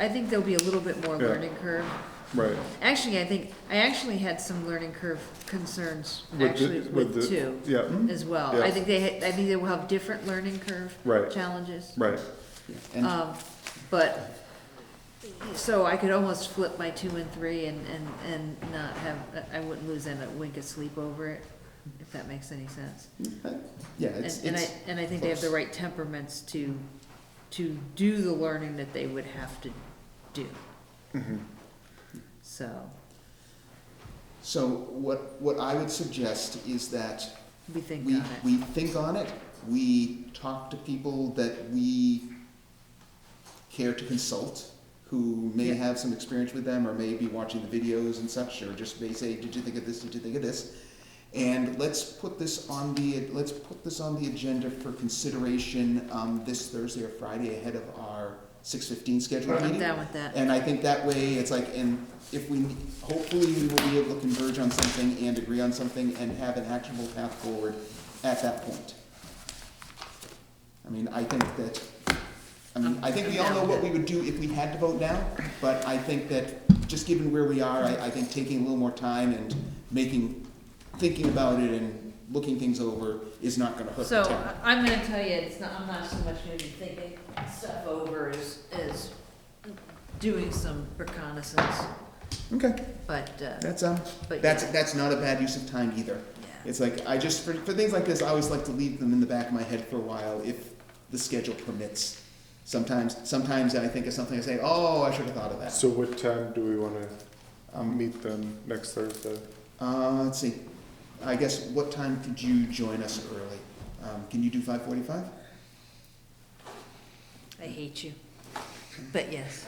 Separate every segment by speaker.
Speaker 1: I think there'll be a little bit more
Speaker 2: Yeah.
Speaker 1: learning curve.
Speaker 2: Right.
Speaker 1: Actually, I think, I actually had some learning curve concerns,
Speaker 2: With the-
Speaker 1: actually,
Speaker 2: the-
Speaker 1: with two
Speaker 2: Yeah, mm,
Speaker 1: as well. I
Speaker 2: Yeah.
Speaker 1: think they, ha- I think they will have different learning curve
Speaker 2: Right.
Speaker 1: challenges.
Speaker 2: right,
Speaker 3: And
Speaker 1: Um, but, so I could almost flip my two and three and, and, and not have, I wouldn't lose a wink of sleep over it, if that makes any sense.
Speaker 3: uh, yeah, it's,
Speaker 1: And, and I,
Speaker 3: it's,
Speaker 1: and I think they have the
Speaker 3: close.
Speaker 1: right temperaments to, to do the learning that they would have to do.
Speaker 3: Mm-hmm.
Speaker 1: So,
Speaker 3: so what, what I would suggest is that
Speaker 1: we think
Speaker 3: we,
Speaker 1: on it.
Speaker 3: we think on it, we talk to people that we care to consult, who may
Speaker 1: Yeah.
Speaker 3: have some experience with them, or may be watching the videos and such, or just may say, did you think of this, did you think of this? And let's put this on the, let's put this on the agenda for consideration, um, this Thursday or Friday ahead of our six fifteen scheduled
Speaker 1: I'm
Speaker 3: meeting.
Speaker 1: down with that.
Speaker 3: And I think that way, it's like, and if we, hopefully we will be able to converge on something and agree on something and have an actionable path forward at that point. I mean, I think that, I mean, I think we all know what we would do if we had to vote now, but I think that, just given where we are, I, I think taking a little more time and making, thinking about it and looking things over is not gonna hurt the
Speaker 1: So, uh,
Speaker 3: town.
Speaker 1: I- I'm gonna tell you, it's not, I'm not so much gonna be thinking stuff over as, as doing some reconnaissance,
Speaker 3: Okay,
Speaker 1: but, uh,
Speaker 3: that's, um,
Speaker 1: but
Speaker 3: that's,
Speaker 1: yeah,
Speaker 3: that's not a bad use of time either.
Speaker 1: yeah.
Speaker 3: It's like I just for, for things like this, I always like to leave them in the back of my head for a while if the schedule permits. Sometimes, sometimes I think of something and say, "Oh, I should have thought of that."
Speaker 2: so what time do we wanna, um, meet them next Thursday?
Speaker 3: Uh, let's see. I guess what time could you join us early? Um, can you do five forty-five?
Speaker 1: I hate you, but yes.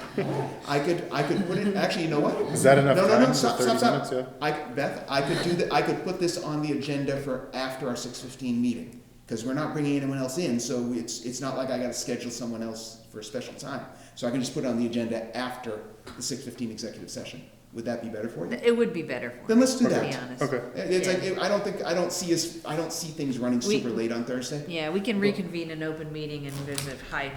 Speaker 3: I could, I could put it. Actually, you know what?
Speaker 2: Is that enough
Speaker 3: No, no, no,
Speaker 2: time for
Speaker 3: stop,
Speaker 2: thirty
Speaker 3: stop, stop.
Speaker 2: minutes, yeah?
Speaker 3: I, Beth, I could do that. I could put this on the agenda for after our six fifteen meeting because we're not bringing anyone else in, so it's it's not like I got to schedule someone else for a special time. So I can just put it on the agenda after the six fifteen executive session. Would that be better for you?
Speaker 1: It would be better for
Speaker 3: Then
Speaker 1: me,
Speaker 3: let's do
Speaker 1: to be
Speaker 3: that.
Speaker 1: honest.
Speaker 2: Okay,
Speaker 3: It's like I don't think I don't see us. I don't see things running
Speaker 1: We-
Speaker 3: super late on Thursday.
Speaker 1: Yeah, we can reconvene an open meeting and there's a high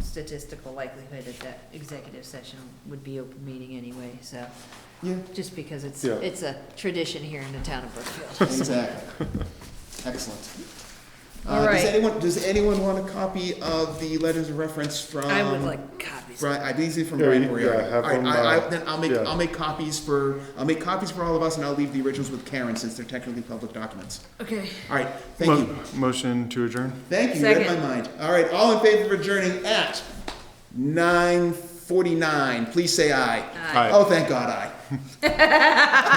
Speaker 1: statistical likelihood that that executive session would be open meeting anyway, so,
Speaker 3: Yeah,
Speaker 1: just because it's,
Speaker 2: Yeah.
Speaker 1: it's a tradition here in the town of Brookfield.
Speaker 3: exactly. Excellent.
Speaker 1: All
Speaker 3: Uh,
Speaker 1: right.
Speaker 3: Does anyone does anyone want a copy of the letters of reference from?
Speaker 1: I would like copies.
Speaker 3: Right, I these are from
Speaker 2: Yeah,
Speaker 3: Brian
Speaker 2: you-
Speaker 3: Moriarty.
Speaker 2: yeah, have
Speaker 3: All right,
Speaker 2: them,
Speaker 3: I, I,
Speaker 2: uh,
Speaker 3: then I'll make,
Speaker 2: yeah.
Speaker 3: I'll make copies for, I'll make copies for all of us, and I'll leave the originals with Karen, since they're technically public documents.
Speaker 1: Okay.
Speaker 3: All right, thank you,
Speaker 2: Motion to adjourn?
Speaker 3: thank you, you read my
Speaker 1: Second.
Speaker 3: mind. All right, all in favor of adjourning at nine forty-nine, please say aye.
Speaker 1: Aye.
Speaker 2: Aye.
Speaker 3: Oh, thank God, aye.